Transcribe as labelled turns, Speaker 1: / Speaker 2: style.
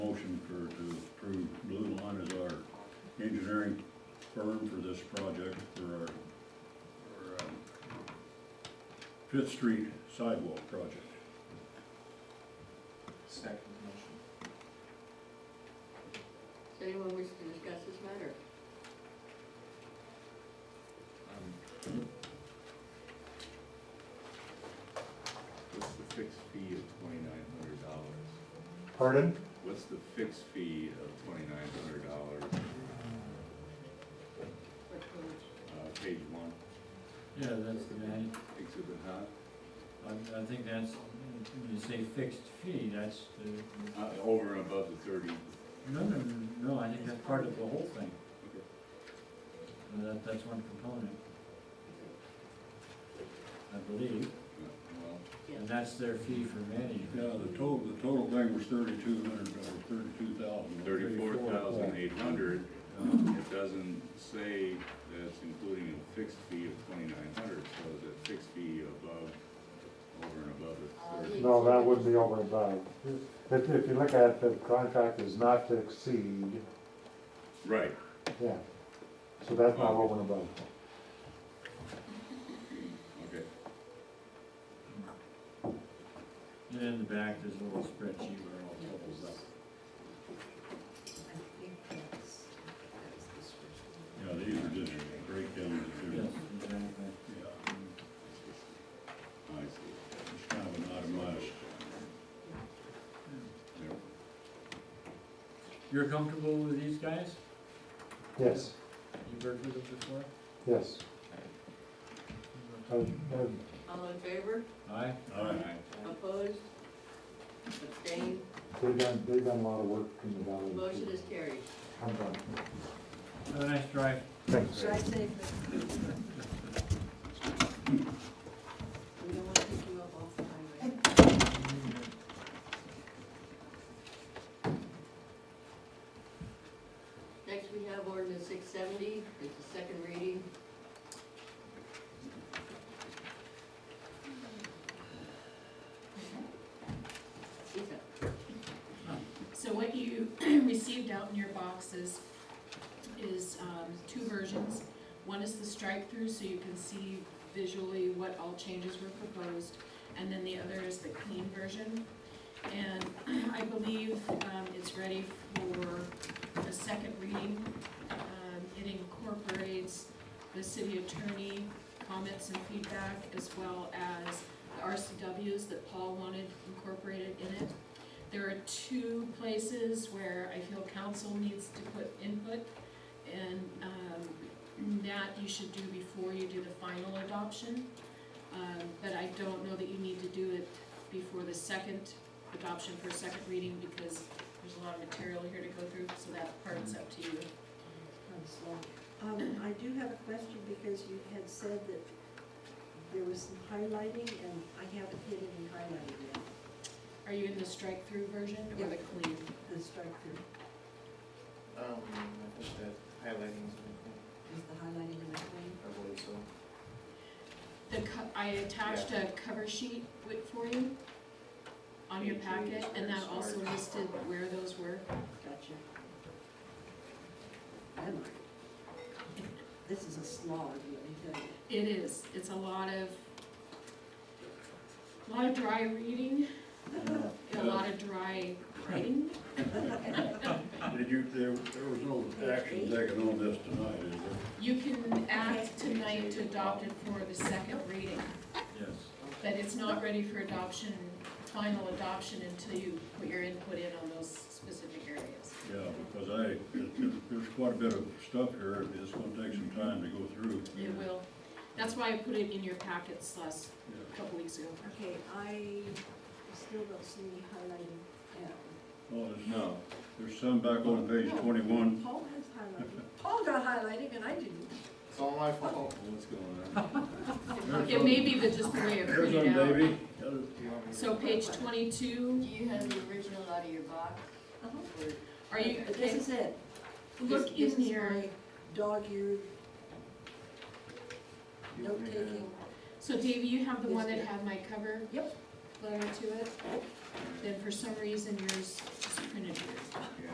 Speaker 1: firm for this project for our, our, um, Fifth Street sidewalk project.
Speaker 2: Second motion.
Speaker 3: Does anyone wish to discuss this matter?
Speaker 2: Um, What's the fixed fee of twenty-nine hundred dollars?
Speaker 4: Pardon?
Speaker 2: What's the fixed fee of twenty-nine hundred dollars,
Speaker 3: What page?
Speaker 2: uh, page one,
Speaker 5: Yeah, that's the guy,
Speaker 2: exhibit H?
Speaker 5: I, I think that's, when you say fixed fee, that's the,
Speaker 2: Uh, over and above the thirty,
Speaker 5: no, no, no, no, I think that's part of the whole thing.
Speaker 2: Okay.
Speaker 5: Uh, That, that's one component. I believe,
Speaker 2: uh, well,
Speaker 5: and
Speaker 3: Yes.
Speaker 5: that's their fee for management.
Speaker 1: Yeah, the total, the total thing was thirty-two hundred, or thirty-two thousand.
Speaker 2: thirty-four thousand eight hundred,
Speaker 1: Uh,
Speaker 2: it doesn't say that's including a fixed fee of twenty-nine hundred, so is it fixed fee above, over and above the thirty?
Speaker 4: No, that would be over and above. If, if you look at the contract is not to exceed,
Speaker 2: Right,
Speaker 4: yeah. So that's not over and above.
Speaker 2: okay.
Speaker 5: And in the back, there's a little spreadsheet where it all totals up.
Speaker 6: I think that's, that's the description.
Speaker 1: Yeah, these are just breakdowns. of
Speaker 5: Yes,
Speaker 1: different-
Speaker 5: exactly.
Speaker 1: Yeah,
Speaker 2: I see.
Speaker 1: it's kind of an itemized.
Speaker 2: Never-
Speaker 5: You're comfortable with these guys?
Speaker 4: Yes,
Speaker 5: You've worked with them before?
Speaker 4: yes. I, I
Speaker 3: All in favor?
Speaker 5: Aye?
Speaker 1: All right,
Speaker 2: Aye.
Speaker 3: Opposed? Abstained?
Speaker 4: They've done, they've done a lot of work in the valley.
Speaker 3: Motion is carried.
Speaker 4: I'm done.
Speaker 5: Have a nice drive.
Speaker 4: Thanks.
Speaker 6: Should I say that
Speaker 3: We don't want to keep you up all the time, right? Next, we have ordinance six seventy, it's the second reading. Lisa,
Speaker 7: So what you received out in your boxes is um, two versions. One is the strike-through, so you can see visually what all changes were proposed, and then the other is the clean version. And I believe um, it's ready for a second reading. Um, It incorporates the city attorney comments and feedback, as well as the RCWs that Paul wanted incorporated in it. There are two places where I feel council needs to put input, and um, that you should do before you do the final adoption. Um, But I don't know that you need to do it before the second adoption for second reading, because there's a lot of material here to go through, so that part's up to you.
Speaker 6: comes along? Um, I do have a question because you had said that there was some highlighting and I haven't hit any highlighting yet,
Speaker 7: Are you in the strike-through version or the clean?
Speaker 6: the strike through.
Speaker 8: Um, I think that highlighting's important,
Speaker 6: Is the highlighting in that way?
Speaker 8: I believe so.
Speaker 7: The, co- I attached a cover sheet wi- for you on your packet, and that also listed where those were.
Speaker 6: Gotcha. Never mind. This is a slog, let me tell you.
Speaker 7: It is, it's a lot of, a lot of dry reading, a lot of dry writing.
Speaker 1: did you, there, there was no action taken on this tonight, is there?
Speaker 7: You can act tonight to adopt it for the second reading,
Speaker 5: Yes.
Speaker 7: but it's not ready for adoption, final adoption until you put your input in on those specific areas.
Speaker 1: Yeah, because I, it- it- there's quite a bit of stuff here, it's gonna take some time to go through.
Speaker 7: It will, that's why I put it in your packets last
Speaker 1: Yeah.
Speaker 7: couple weeks ago.
Speaker 6: Okay, I still don't see any highlighting. Yeah.
Speaker 1: Oh, there's,
Speaker 2: No,
Speaker 1: there's some back on page twenty-one.
Speaker 6: Paul has highlighting. Paul got highlighting and I didn't.
Speaker 8: It's all my fault.
Speaker 2: what's going on?
Speaker 7: It may be that just the way it
Speaker 1: There's
Speaker 7: printed
Speaker 1: one,
Speaker 7: out.
Speaker 1: baby. There's-
Speaker 8: Do you want me to-
Speaker 7: So page
Speaker 3: do
Speaker 7: twenty-two,
Speaker 3: you have the original out of your box?
Speaker 6: Uh-huh.
Speaker 3: Or-
Speaker 7: are you,
Speaker 6: But this is it.
Speaker 7: look
Speaker 6: This-
Speaker 7: in
Speaker 6: This is
Speaker 7: here.
Speaker 6: my dog-eared
Speaker 8: do you want me to-
Speaker 6: note-taking.
Speaker 7: So Davey, you have the one that
Speaker 6: Yes,
Speaker 7: had my cover?
Speaker 6: Yep.
Speaker 7: Letter to it? Then for some reason yours is printed weird.